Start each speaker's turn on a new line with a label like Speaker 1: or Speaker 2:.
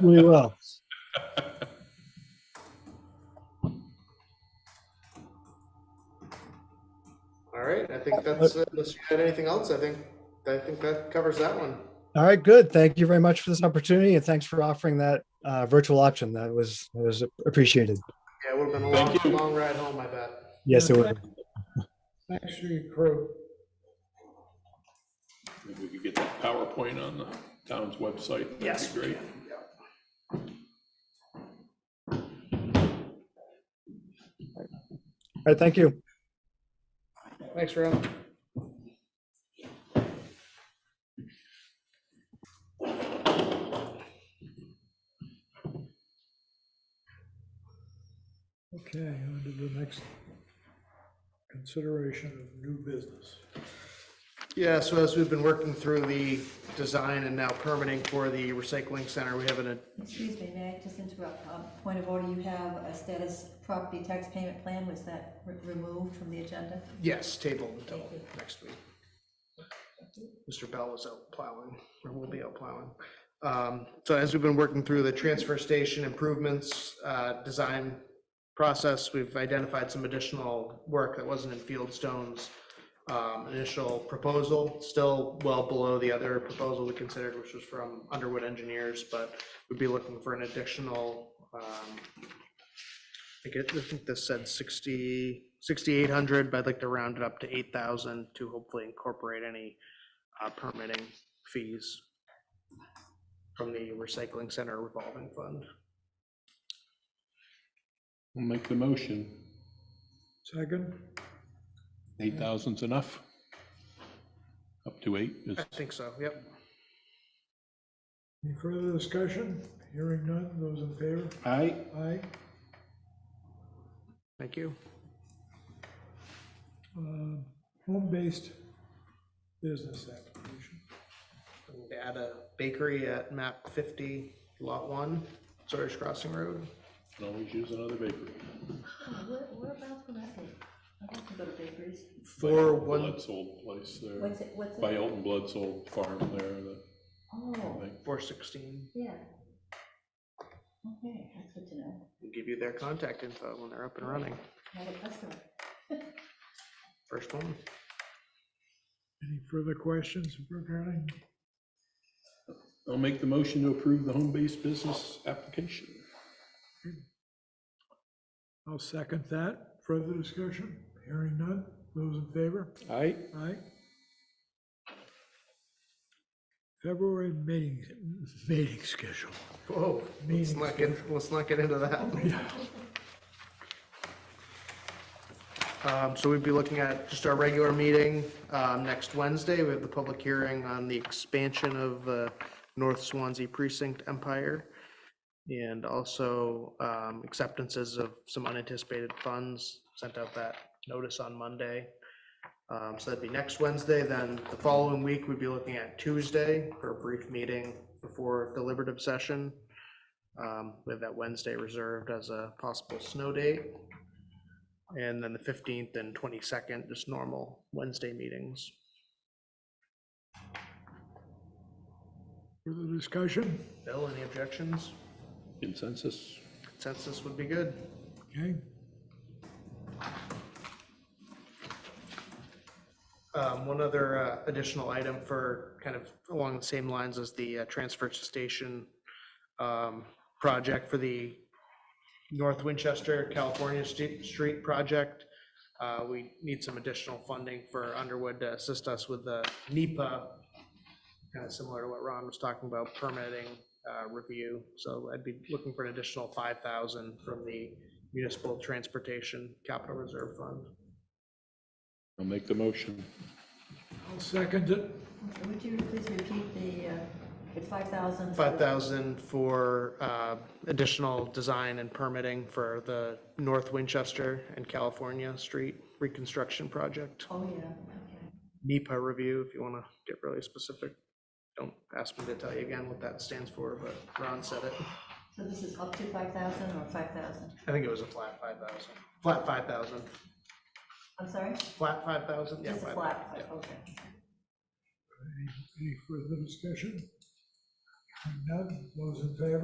Speaker 1: We will.
Speaker 2: All right, I think that's, it. unless you had anything else, I think, I think that covers that one.
Speaker 1: All right, good. Thank you very much for this opportunity and thanks for offering that uh, virtual option. That was, that was appreciated.
Speaker 2: Yeah, it would have been a long,
Speaker 3: Thank you.
Speaker 2: long ride home, I bet.
Speaker 1: Yes, it was.
Speaker 4: Thanks for your crew.
Speaker 3: If we could get that PowerPoint on the town's website, that'd
Speaker 2: Yes,
Speaker 3: be
Speaker 2: we
Speaker 3: great.
Speaker 1: All right, thank you.
Speaker 4: Thanks, Rob. Okay, on to the next consideration of new business.
Speaker 2: Yeah, so as we've been working through the design and now permitting for the recycling center, we have an,
Speaker 5: Excuse me, may I just interrupt? Um, Point of order, you have a status property tax payment plan, was that re- removed from the agenda?
Speaker 2: yes, table until next week. Mr. Bell is out plowing, or will be out plowing. Um, So as we've been working through the transfer station improvements, uh, design process, we've identified some additional work that wasn't in Fieldstone's um, initial proposal, still well below the other proposal we considered, which was from Underwood Engineers, but we'd be looking for an additional, um, I get, I think this said 60, 6,800, but I'd like to round it up to 8,000 to hopefully incorporate any uh, permitting fees from the recycling center revolving fund.
Speaker 3: We'll make the motion.
Speaker 4: Second?
Speaker 3: Eight thousand's enough? Up to eight is,
Speaker 2: I think so, yep.
Speaker 4: Any further discussion? Hearing none, those in favor?
Speaker 3: aye?
Speaker 4: Aye.
Speaker 2: Thank you.
Speaker 4: Um, Home-based business application.
Speaker 2: Add a bakery at map 50, lot 1, Sawyer's Crossing Road.
Speaker 3: Can always use another bakery.
Speaker 5: Oh, Whereabouts would I be? I have to go to bakeries.
Speaker 2: For
Speaker 3: By Olton
Speaker 2: one,
Speaker 3: Blood's old place there,
Speaker 5: What's it, what's
Speaker 3: by
Speaker 5: it?
Speaker 3: Elton Blood's old farm there, the-
Speaker 5: Oh,
Speaker 2: 416,
Speaker 5: yeah. Okay, that's good to know.
Speaker 2: we'll give you their contact info when they're up and running.
Speaker 5: Not a customer.
Speaker 2: First one.
Speaker 4: Any further questions regarding?
Speaker 3: I'll make the motion to approve the home-based business application.
Speaker 4: I'll second that. Further discussion? Hearing none. Those in favor?
Speaker 3: Aye?
Speaker 4: Aye. February meeting, meeting schedule.
Speaker 2: Whoa, let's
Speaker 4: Meeting
Speaker 2: not get, let's not get into that. Um, so we'd be looking at just our regular meeting, um, next Wednesday. We have the public hearing on the expansion of, uh, North Swansea Precinct Empire. And also, um, acceptances of some unanticipated funds, sent out that notice on Monday. Um, so that'd be next Wednesday, then the following week, we'd be looking at Tuesday for a brief meeting before deliberative session. Um, we have that Wednesday reserved as a possible snow date. And then the fifteenth and twenty-second, just normal Wednesday meetings.
Speaker 4: Further discussion?
Speaker 2: Bill, any objections?
Speaker 3: Consensus?
Speaker 2: Consensus would be good.
Speaker 4: Okay.
Speaker 2: Um, One other uh, additional item for kind of along the same lines as the uh, transfer station um, project for the North Winchester, California Stu- Street project. Uh, We need some additional funding for Underwood to assist us with the NEPA, kind of similar to what Ron was talking about, permitting uh, review. So I'd be looking for an additional 5,000 from the Municipal Transportation Capital Reserve Fund.
Speaker 3: I'll make the motion.
Speaker 4: I'll second it.
Speaker 5: Would you please repeat the, uh, it's 5,000?
Speaker 2: 5,000 for uh, additional design and permitting for the North Winchester and California Street Reconstruction Project.
Speaker 5: Oh, yeah, okay.
Speaker 2: NEPA review, if you want to get really specific. Don't ask me to tell you again what that stands for, but Ron said it.
Speaker 5: So this is up to 5,000 or 5,000?
Speaker 2: I think it was a flat 5,000. Flat 5,000.
Speaker 5: I'm sorry?
Speaker 2: Flat 5,000? Yeah,
Speaker 5: Just a
Speaker 2: 5,000,
Speaker 5: flat,
Speaker 2: yeah.
Speaker 5: okay.
Speaker 4: Any further discussion? Hearing none. Those in favor?